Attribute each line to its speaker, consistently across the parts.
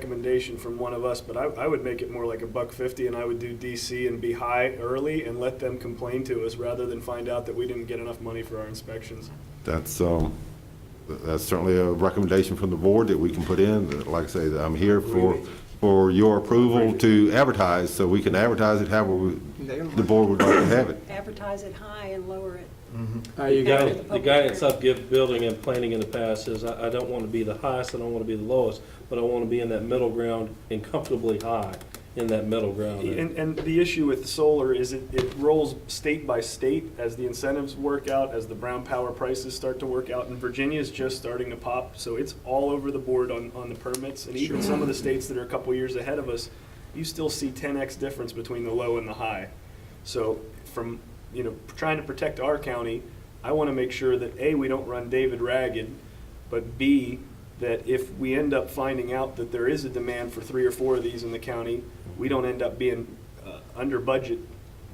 Speaker 1: recommendation from one of us, but I, I would make it more like a buck fifty, and I would do DC and be high early and let them complain to us, rather than find out that we didn't get enough money for our inspections.
Speaker 2: That's, um, th- that's certainly a recommendation from the board that we can put in. That, Like I say, that I'm here for, for your approval to advertise, so we can advertise it however we- the board would like to have it.
Speaker 3: advertise it high and lower it.
Speaker 4: Uh, you got it.
Speaker 3: Public
Speaker 5: The guidance
Speaker 3: hearing.
Speaker 5: I've given building and planning in the past is I, I don't want to be the highest, I don't want to be the lowest, but I want to be in that middle ground and comfortably high in that middle ground. And
Speaker 1: And, and the issue with solar is it, it rolls state by state as the incentives work out, as the brown power prices start to work out, and Virginia's just starting to pop, so it's all over the board on, on the permits, and even some of the states that are a couple years ahead of us, you still see ten X difference between the low and the high. So from, you know, trying to protect our county, I want to make sure that, A, we don't run David ragged, but B, that if we end up finding out that there is a demand for three or four of these in the county, we don't end up being uh, under budget.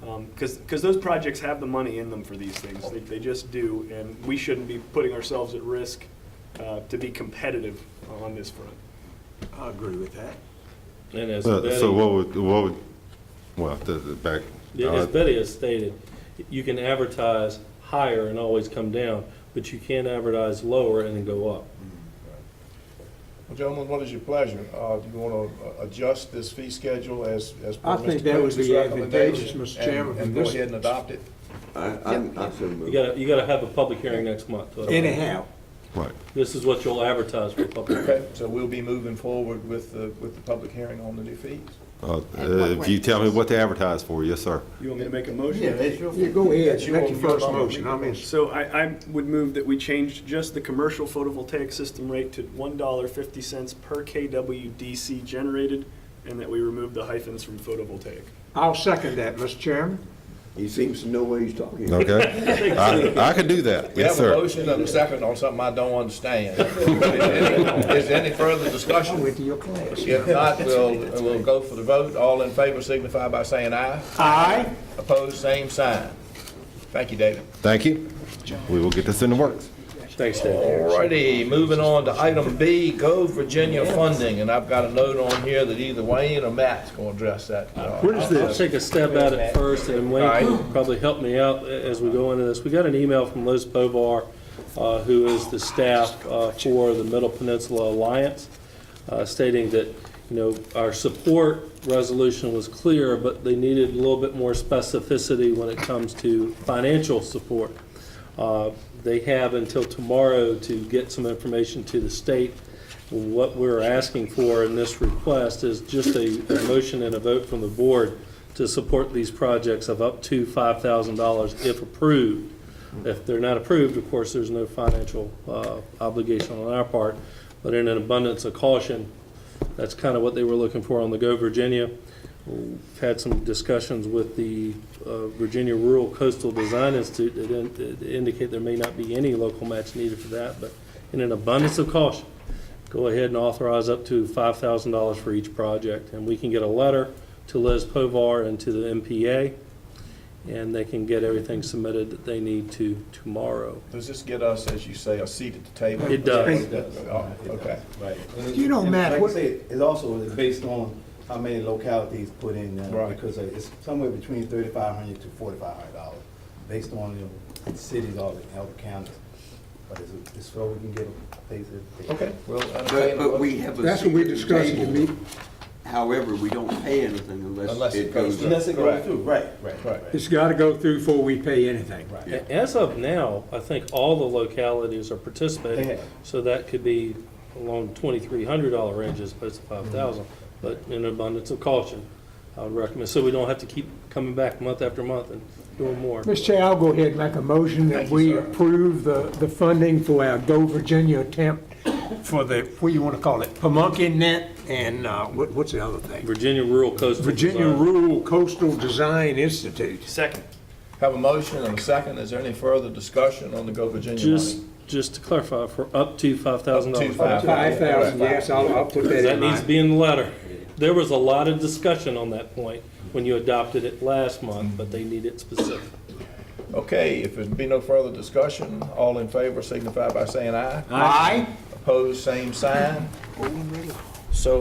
Speaker 1: Because, because those projects have the money in them for these things. They, they just do, and we shouldn't be putting ourselves at risk uh, to be competitive on this front.
Speaker 4: I agree with that.
Speaker 5: and as
Speaker 2: Uh, So
Speaker 5: Betty,
Speaker 2: what would, what would, well, the, the back. uh,
Speaker 5: yeah, as Betty has stated, you can advertise higher and always come down, but you can't advertise lower and then go up.
Speaker 6: Well, Gentlemen, what is your pleasure? Uh, Do you want to adjust this fee schedule as, as per
Speaker 4: I
Speaker 6: Mr.
Speaker 4: think that would
Speaker 6: Coombs'
Speaker 4: be
Speaker 6: recommendation
Speaker 4: advantageous, Mr.
Speaker 6: and-
Speaker 4: Chairman,
Speaker 6: And
Speaker 4: from
Speaker 6: go
Speaker 4: this-
Speaker 6: ahead and adopt it?
Speaker 7: I, I'm, I'm so
Speaker 5: You
Speaker 7: moved.
Speaker 5: gotta, you gotta have a public hearing next month.
Speaker 4: Anyhow,
Speaker 2: Right.
Speaker 5: This is what you'll advertise for public. hearing.
Speaker 6: Okay, so we'll be moving forward with the, with the public hearing on the new fees.
Speaker 2: Uh,
Speaker 7: At what
Speaker 2: If you
Speaker 7: rate?
Speaker 2: tell me what to advertise for, yes, sir.
Speaker 1: You want me to make a motion?
Speaker 4: you go ahead,
Speaker 6: That's your-
Speaker 4: make your first
Speaker 6: your-
Speaker 4: motion, I'm in.
Speaker 1: So I, I would move that we change just the commercial photovoltaic system rate to one dollar fifty cents per KW DC generated, and that we remove the hyphens from photovoltaic.
Speaker 4: I'll second that, Mr. Chairman.
Speaker 7: He seems to know what he's talking about.
Speaker 2: Okay? I, I could do that,
Speaker 6: We
Speaker 2: yes,
Speaker 6: have a
Speaker 2: sir.
Speaker 6: motion and a second on something I don't understand. Is there any further
Speaker 4: I
Speaker 6: discussion?
Speaker 4: went to your class.
Speaker 6: If not, we'll, we'll go for the vote. All in favor signify by saying aye.
Speaker 4: Aye.
Speaker 6: Opposed, same sign. Thank you, David.
Speaker 2: Thank you. We will get this in the works.
Speaker 5: Thanks, Dan.
Speaker 6: Alrighty, moving on to item B, Go Virginia funding, and I've got a note on here that either Wayne or Matt's gonna address that.
Speaker 4: What is
Speaker 5: I'll
Speaker 4: this?
Speaker 5: take a stab at it first, and Wayne can
Speaker 6: Alright.
Speaker 5: probably help me out a- as we go into this. We got an email from Liz Povar, uh, who is the staff uh, for the Middle Peninsula Alliance, uh, stating that, you know, our support resolution was clear, but they needed a little bit more specificity when it comes to financial support. Uh, They have until tomorrow to get some information to the state. What we're asking for in this request is just a a motion and a vote from the board to support these projects of up to $5,000 if approved. If they're not approved, of course, there's no financial uh, obligation on our part, but in an abundance of caution, that's kind of what they were looking for on the Go Virginia. We've had some discussions with the uh, Virginia Rural Coastal Design Institute that in- that indicate there may not be any local match needed for that, but in an abundance of caution, go ahead and authorize up to $5,000 for each project. And we can get a letter to Liz Povar and to the MPA, and they can get everything submitted that they need to tomorrow.
Speaker 6: Does this get us, as you say, a seat at the table?
Speaker 5: It does.
Speaker 6: Oh, Okay.
Speaker 4: You know, Matt,
Speaker 8: Like I
Speaker 4: what-
Speaker 8: said, it's also based on how many localities put in there,
Speaker 6: Right.
Speaker 8: because it's somewhere between thirty-five hundred to forty-five hundred dollars, based on the cities or the other counties. But it's, it's so we can get a place that.
Speaker 6: Okay, well, uh,
Speaker 7: But,
Speaker 6: entertain a
Speaker 7: but we
Speaker 6: motion.
Speaker 7: have a.
Speaker 4: That's what we
Speaker 7: seat at the
Speaker 4: discussed in
Speaker 7: table.
Speaker 4: the meeting.
Speaker 7: However, we don't pay anything unless
Speaker 6: Unless
Speaker 7: it
Speaker 6: it
Speaker 7: goes
Speaker 6: goes
Speaker 7: up.
Speaker 8: Unless it
Speaker 6: Correct.
Speaker 8: goes through, right, right,
Speaker 6: Right.
Speaker 8: right.
Speaker 4: It's gotta go through before we pay anything.
Speaker 8: Right.
Speaker 5: As of now, I think all the localities are participating,
Speaker 8: Yeah.
Speaker 5: so that could be along twenty-three hundred dollar range as opposed to five thousand. But in abundance of caution, I would recommend, so we don't have to keep coming back month after month and doing more.
Speaker 4: Mr. Chair, I'll go ahead and make a motion that we approve the, the funding for our Go Virginia attempt for the, what do you wanna call it, Pamunkey Net and, uh, what, what's the other thing?
Speaker 5: Virginia Rural Coastal
Speaker 4: Virginia
Speaker 5: Design.
Speaker 4: Rural Coastal Design Institute.
Speaker 1: Second.
Speaker 6: Have a motion and a second. Is there any further discussion on the Go Virginia
Speaker 5: Just,
Speaker 6: money?
Speaker 5: just to clarify, for up to five thousand dollars.
Speaker 6: Up to
Speaker 4: Five thousand, yes, I'll, I'll put that
Speaker 5: That
Speaker 4: in
Speaker 5: needs to
Speaker 4: mine.
Speaker 5: be in the letter. There was a lot of discussion on that point when you adopted it last month, but they need it specific.
Speaker 6: Okay, if there'd be no further discussion, all in favor signify by saying aye.
Speaker 4: Aye.
Speaker 6: Opposed, same sign. So